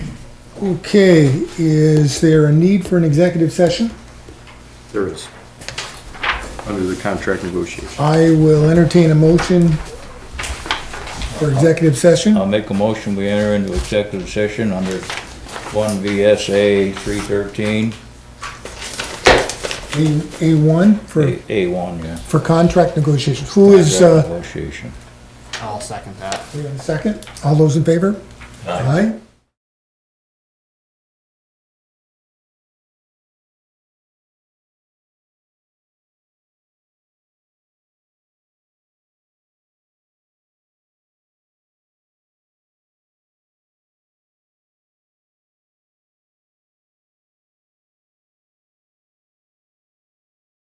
Okay, is there a need for an executive session? There is. Under the contract negotiation. I will entertain a motion for executive session. I'll make a motion, we enter into executive session under one VSA three thirteen, A one for, A one, yeah. for contract negotiations. Who is, Contract uh, Negotiation. I'll second that. we have a second? All those in favor? Aye.